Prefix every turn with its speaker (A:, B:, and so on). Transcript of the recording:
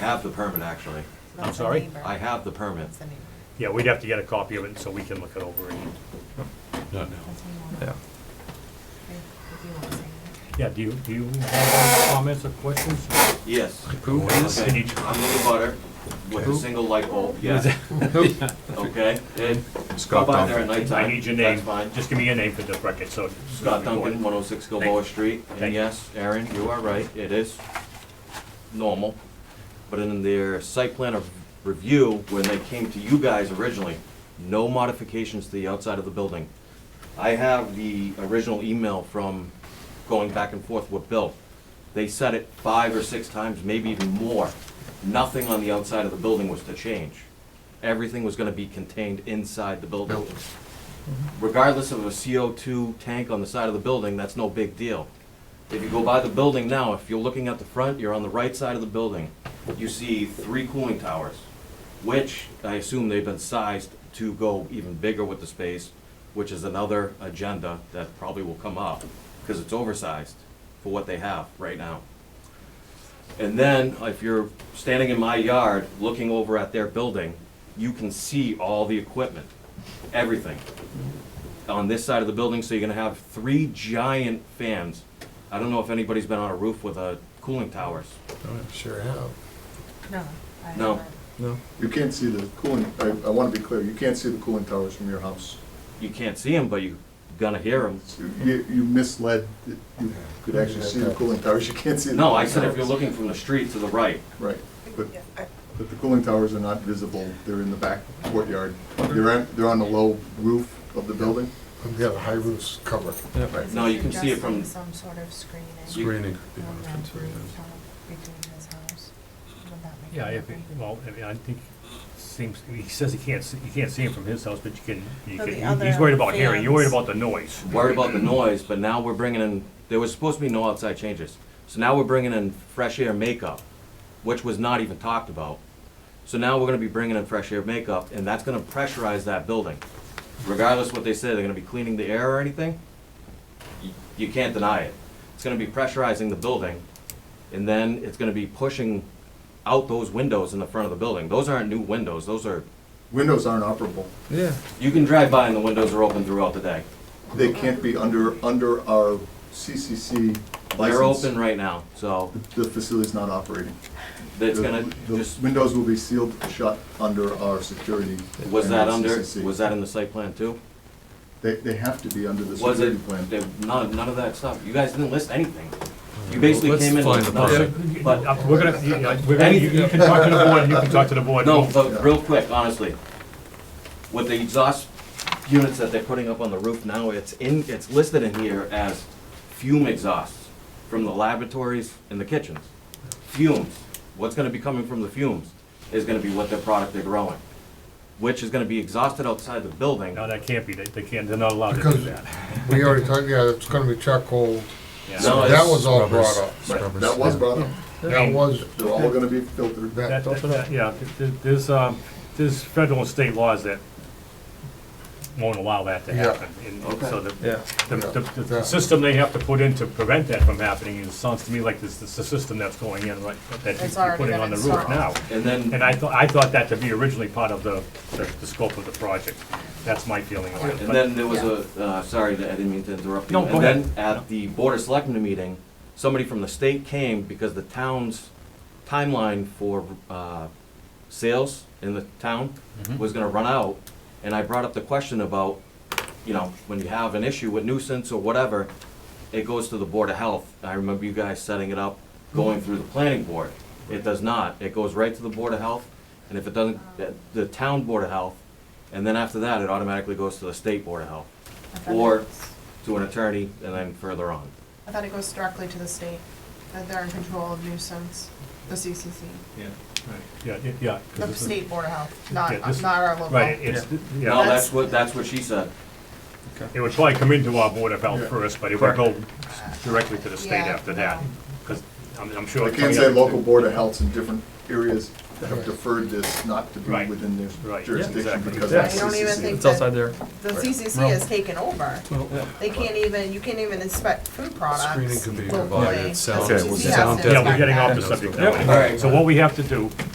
A: I have the permit, actually.
B: That's
C: I'm
B: a
C: sorry?
B: neighbor.
A: I have the permit.
B: That's a neighbor.
C: Yeah, we'd have to get a copy of it so we can look it over. and-
D: Not now.
E: Yeah.
B: That's what you want. If- if you want to say that.
C: Yeah, do you, do you have any comments or questions?
A: Yes.
E: Who is?
A: Okay, I'm the butter with a
E: Who?
A: single light bulb, yeah, okay? And go
E: Scott
A: by there
E: Duncan.
A: at nighttime.
C: I need your
A: That's
C: name.
A: fine.
C: Just give me your name for the record, so. it's
A: Scott
C: recorded.
A: Duncan, one oh six Gilboa Street. And
C: Thank you.
A: yes, Aaron, you are right, it is normal. But in their site plan of review, when they came to you guys originally, no modifications to the outside of the building. I have the original email from going back and forth with Bill. They said it five or six times, maybe even more. Nothing on the outside of the building was to change. Everything was gonna be contained inside the building. Regardless of a CO2 tank on the side of the building, that's no big deal. If you go by the building now, if you're looking at the front, you're on the right side of the building, you see three cooling towers, which I assume they've been sized to go even bigger with the space, which is another agenda that probably will come up, because it's oversized for what they have right now. And then, if you're standing in my yard, looking over at their building, you can see all the equipment, everything on this side of the building, so you're gonna have three giant fans. I don't know if anybody's been on a roof with a cooling towers.
E: Sure have.
B: No. I
A: No.
B: haven't.
E: No.
F: You can't see the cooling, I, I want to be clear, you can't see the cooling towers from your house.
A: You can't see them, but you're gonna hear them.
F: You, you misled, you could actually see the cooling towers, you can't see the.
A: No, I
F: cooling
A: said if you're
F: towers.
A: looking from the street to the right.
F: Right, but, but the cooling towers are not visible, they're in the back courtyard. They're, on- they're on the low roof of the building.
G: We've got a high roof cover.
B: Is
A: No,
B: he
A: you can see it from-
B: suggesting Some sort of screening.
E: Screening could be one
B: on
E: of
B: that
E: the concerns.
B: rooftop Between his house. Would that make
C: Yeah,
B: it
C: if,
B: okay?
C: well, I mean, I think, seems, he says he can't, see- you can't see him from his house, but you can, you
B: But the
C: can, he's
B: other
C: worried about hearing, you're worried
B: fans.
C: about the noise.
A: Worried about the noise, but now we're bringing in, there was supposed to be no outside changes. So now we're bringing in fresh air makeup, which was not even talked about. So now we're gonna be bringing in fresh air makeup, and that's gonna pressurize that building. Regardless what they say, they're gonna be cleaning the air or anything, you- you can't deny it. It's gonna be pressurizing the building, and then it's gonna be pushing out those windows in the front of the building. Those aren't new windows, those are,
F: Windows aren't operable.
E: Yeah.
A: you can drive by and the windows are open throughout the day.
F: They can't be under, under our CCC
A: They're
F: license.
A: open right now, so
F: The facility's not operating.
A: that's
F: The-
A: gonna
F: The
A: just
F: windows will be sealed shut under our security.
A: Was
F: and
A: that
F: our
A: under,
F: CCC.
A: was that in the site plan too?
F: They, they have to be under the
A: Was
F: security
A: it,
F: plan.
A: there- none, none of that stuff, you guys didn't list anything. You basically
E: Let's
A: came in
E: find
A: with
E: the
A: nothing.
C: But uh, we're gonna, you- uh, we're gonna, you
A: Anything.
C: you can talk to the board, you can talk to the board.
A: No, but real quick, honestly, with the exhaust units that they're putting up on the roof now, it's in, it's listed in here as fume exhausts from the laboratories and the kitchens. Fumes, what's gonna be coming from the fumes is gonna be what their product they're growing, which is gonna be exhausted outside the building.
C: No, that can't be, they, they can't, they're not allowed to do
G: Because-
C: that.
G: We already talked, yeah, it's gonna be charcoal.
C: Yeah.
A: No,
G: So That
A: it's-
G: was all
E: Rubbers.
G: brought up.
F: Right, That was brought up.
G: That was,
F: They're all gonna be filtered.
C: That-
G: that,
C: that- that- Yeah, th- th- there's, um, there's federal and state laws that won't allow that to
G: Yeah.
C: happen. And so the,
E: Yeah.
C: the, the- the- the
G: Yeah.
C: system they have to put in to prevent that from happening, it sounds to me like this, this is the system that's going in right, that
B: It's
C: you're
B: already
C: putting
B: been
C: on the roof
B: installed.
C: now.
A: And then.
C: And I thought, I thought that to be originally part of the, the the scope of the project. That's my feeling on it.
A: And then there was a, uh, sorry, I didn't mean to interrupt you.
C: No, go
A: And
C: ahead.
A: then at the Board of Selectmen meeting, somebody from the state came because the town's timeline for uh, sales in the town
C: Mm-hmm.
A: was gonna run out. And I brought up the question about, you know, when you have an issue with nuisance or whatever, it goes to the Board of Health. I remember you guys setting it up, going through the planning board. It does not. It goes right to the Board of Health, and if it doesn't, the- the town Board of Health, and then after that, it automatically goes to the state Board of Health,
B: I thought it
A: or
B: was-
A: to an attorney, and then further on.
B: I thought it goes directly to the state, that they're in control of nuisance, the CCC,
C: Yeah, yeah, yeah. 'cause
B: the
C: this is-
B: state board of health,
C: Yeah,
B: not,
C: this-
B: not our local.
C: Right, it's,
A: No,
C: yeah,
A: that's what, that's what she said.
C: it would probably come into our Board of Health
F: Yeah.
C: first, but it would go
E: Correct.
C: directly to the state
B: Yeah,
C: after that.
B: no.
C: Because I'm, I'm sure.
F: I
C: coming
F: can't say
C: up-
F: local board of healths in different areas have deferred this not to be
C: Right.
F: within
C: Right.
F: their
C: Yeah,
F: jurisdiction
C: exactly.
F: because
B: I
F: of
C: Exactly.
B: don't even
F: CCC.
B: think
D: It's outside
B: that
D: there.
B: the CCC
E: Well-
B: has taken over. They can't even, you can't even inspect food products.
E: Screening can be
B: locally.
E: provided,
B: The
E: sound-
B: CCC has to
C: Yeah, we're
B: inspect
C: getting
B: that.
C: off the subject
E: Yep.
C: now. So what we have to do